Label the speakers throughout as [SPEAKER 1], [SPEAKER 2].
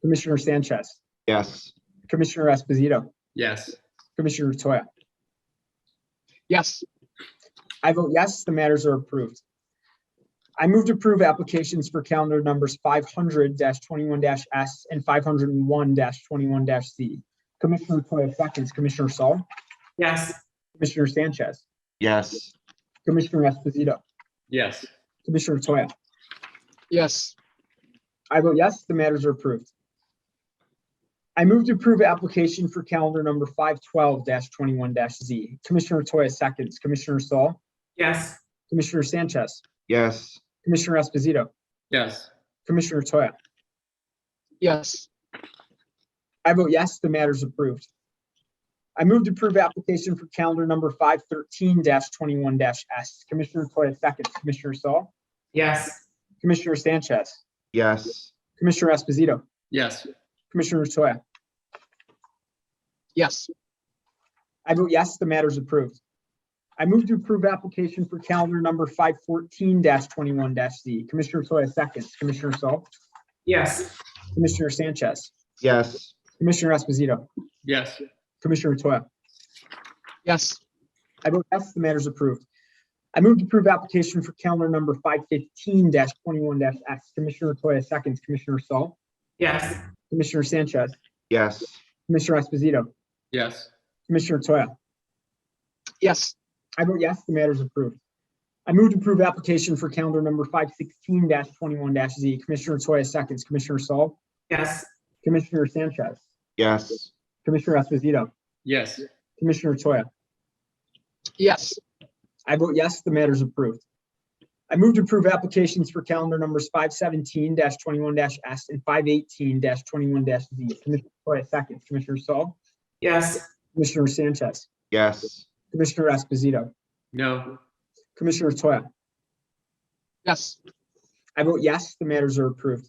[SPEAKER 1] Commissioner Sanchez,
[SPEAKER 2] Yes.
[SPEAKER 1] Commissioner Esposito,
[SPEAKER 3] Yes.
[SPEAKER 1] Commissioner Toya.
[SPEAKER 2] Yes.
[SPEAKER 1] I vote yes, the matters are approved. I move to approve applications for calendar numbers five hundred twenty-one S and five hundred and one twenty-one Z. Commissioner Toya seconds, Commissioner Saul,
[SPEAKER 4] yes,
[SPEAKER 1] Commissioner Sanchez,
[SPEAKER 2] Yes.
[SPEAKER 1] Commissioner Esposito,
[SPEAKER 3] Yes.
[SPEAKER 1] Commissioner Toya.
[SPEAKER 2] Yes.
[SPEAKER 1] I vote yes, the matters are approved. I move to approve application for calendar number five twelve twenty-one Z. Commissioner Toya seconds, Commissioner Saul,
[SPEAKER 4] yes,
[SPEAKER 1] Commissioner Sanchez,
[SPEAKER 2] Yes.
[SPEAKER 1] Commissioner Esposito,
[SPEAKER 3] Yes.
[SPEAKER 1] Commissioner Toya.
[SPEAKER 2] Yes.
[SPEAKER 1] I vote yes, the matter is approved. I move to approve application for calendar number five thirteen twenty-one S. Commissioner Toya seconds, Commissioner Saul,
[SPEAKER 4] yes,
[SPEAKER 1] Commissioner Sanchez,
[SPEAKER 2] Yes.
[SPEAKER 1] Commissioner Esposito,
[SPEAKER 3] Yes.
[SPEAKER 1] Commissioner Toya.
[SPEAKER 2] Yes.
[SPEAKER 1] I vote yes, the matter is approved. I move to approve application for calendar number five fourteen twenty-one Z. Commissioner Toya seconds, Commissioner Saul,
[SPEAKER 4] yes,
[SPEAKER 1] Commissioner Sanchez,
[SPEAKER 2] Yes.
[SPEAKER 1] Commissioner Esposito,
[SPEAKER 3] Yes.
[SPEAKER 1] Commissioner Toya.
[SPEAKER 2] Yes.
[SPEAKER 1] I vote yes, the matter is approved. I move to approve application for calendar number five fifteen twenty-one X. Commissioner Toya seconds, Commissioner Saul,
[SPEAKER 4] yes,
[SPEAKER 1] Commissioner Sanchez,
[SPEAKER 2] Yes.
[SPEAKER 1] Commissioner Esposito,
[SPEAKER 3] Yes.
[SPEAKER 1] Commissioner Toya.
[SPEAKER 2] Yes.
[SPEAKER 1] I vote yes, the matter is approved. I move to approve application for calendar number five sixteen twenty-one Z. Commissioner Toya seconds, Commissioner Saul,
[SPEAKER 4] yes,
[SPEAKER 1] Commissioner Sanchez,
[SPEAKER 2] Yes.
[SPEAKER 1] Commissioner Esposito,
[SPEAKER 3] Yes.
[SPEAKER 1] Commissioner Toya.
[SPEAKER 2] Yes.
[SPEAKER 1] I vote yes, the matter is approved. I move to approve applications for calendar numbers five seventeen twenty-one S and five eighteen twenty-one Z. Commissioner Toya seconds, Commissioner Saul,
[SPEAKER 4] yes,
[SPEAKER 1] Commissioner Sanchez,
[SPEAKER 2] Yes.
[SPEAKER 1] Commissioner Esposito,
[SPEAKER 3] No.
[SPEAKER 1] Commissioner Toya.
[SPEAKER 2] Yes.
[SPEAKER 1] I vote yes, the matters are approved.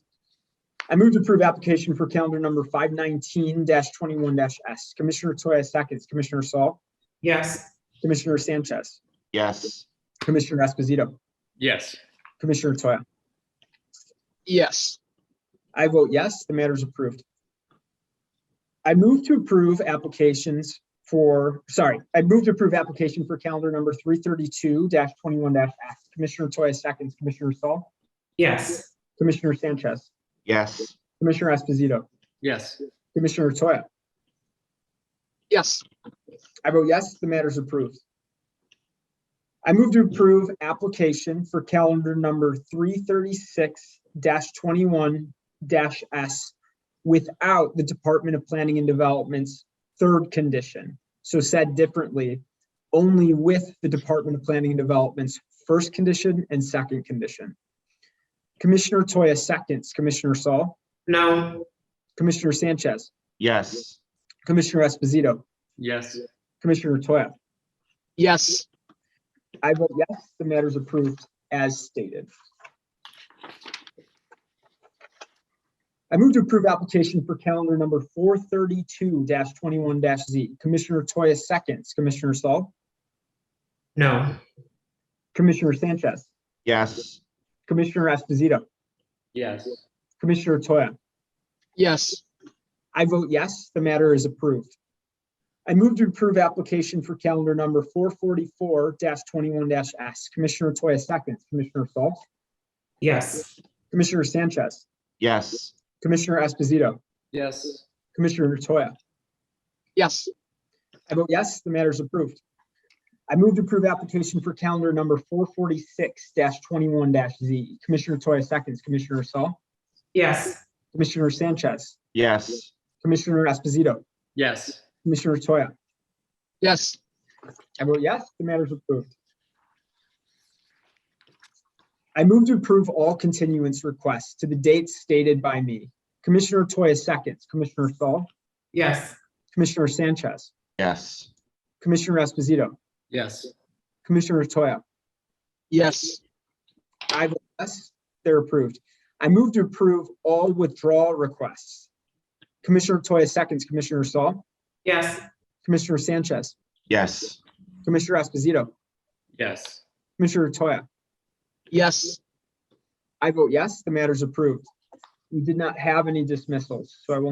[SPEAKER 1] I move to approve application for calendar number five nineteen twenty-one S. Commissioner Toya seconds, Commissioner Saul,
[SPEAKER 4] yes,
[SPEAKER 1] Commissioner Sanchez,
[SPEAKER 2] Yes.
[SPEAKER 1] Commissioner Esposito,
[SPEAKER 3] Yes.
[SPEAKER 1] Commissioner Toya.
[SPEAKER 2] Yes.
[SPEAKER 1] I vote yes, the matter is approved. I move to approve applications for, sorry, I move to approve application for calendar number three thirty-two twenty-one X. Commissioner Toya seconds, Commissioner Saul,
[SPEAKER 4] yes,
[SPEAKER 1] Commissioner Sanchez,
[SPEAKER 2] Yes.
[SPEAKER 1] Commissioner Esposito,
[SPEAKER 3] Yes.
[SPEAKER 1] Commissioner Toya.
[SPEAKER 2] Yes.
[SPEAKER 1] I vote yes, the matter is approved. I move to approve application for calendar number three thirty-six twenty-one S without the Department of Planning and Development's third condition. So said differently, only with the Department of Planning and Development's first condition and second condition. Commissioner Toya seconds, Commissioner Saul,
[SPEAKER 4] no,
[SPEAKER 1] Commissioner Sanchez,
[SPEAKER 2] Yes.
[SPEAKER 1] Commissioner Esposito,
[SPEAKER 3] Yes.
[SPEAKER 1] Commissioner Toya.
[SPEAKER 2] Yes.
[SPEAKER 1] I vote yes, the matter is approved as stated. I move to approve application for calendar number four thirty-two twenty-one Z. Commissioner Toya seconds, Commissioner Saul,
[SPEAKER 4] no,
[SPEAKER 1] Commissioner Sanchez,
[SPEAKER 2] Yes.
[SPEAKER 1] Commissioner Esposito,
[SPEAKER 3] Yes.
[SPEAKER 1] Commissioner Toya.
[SPEAKER 2] Yes.
[SPEAKER 1] I vote yes, the matter is approved. I move to approve application for calendar number four forty-four twenty-one S. Commissioner Toya seconds, Commissioner Saul,
[SPEAKER 4] yes,
[SPEAKER 1] Commissioner Sanchez,
[SPEAKER 2] Yes.
[SPEAKER 1] Commissioner Esposito,
[SPEAKER 3] Yes.
[SPEAKER 1] Commissioner Toya.
[SPEAKER 2] Yes.
[SPEAKER 1] I vote yes, the matter is approved. I move to approve application for calendar number four forty-six twenty-one Z. Commissioner Toya seconds, Commissioner Saul,
[SPEAKER 4] yes,
[SPEAKER 1] Commissioner Sanchez,
[SPEAKER 2] Yes.
[SPEAKER 1] Commissioner Esposito,
[SPEAKER 3] Yes.
[SPEAKER 1] Commissioner Toya.
[SPEAKER 2] Yes.
[SPEAKER 1] I vote yes, the matter is approved. I move to approve all continuance requests to the dates stated by me. Commissioner Toya seconds, Commissioner Saul,
[SPEAKER 4] yes,
[SPEAKER 1] Commissioner Sanchez,
[SPEAKER 2] Yes.
[SPEAKER 1] Commissioner Esposito,
[SPEAKER 3] Yes.
[SPEAKER 1] Commissioner Toya.
[SPEAKER 2] Yes.
[SPEAKER 1] I vote yes, they're approved. I move to approve all withdrawal requests. Commissioner Toya seconds, Commissioner Saul,
[SPEAKER 4] yes,
[SPEAKER 1] Commissioner Sanchez,
[SPEAKER 2] Yes.
[SPEAKER 1] Commissioner Esposito,
[SPEAKER 3] Yes.
[SPEAKER 1] Commissioner Toya.
[SPEAKER 2] Yes.
[SPEAKER 1] I vote yes, the matter is approved. We did not have any dismissals, so I will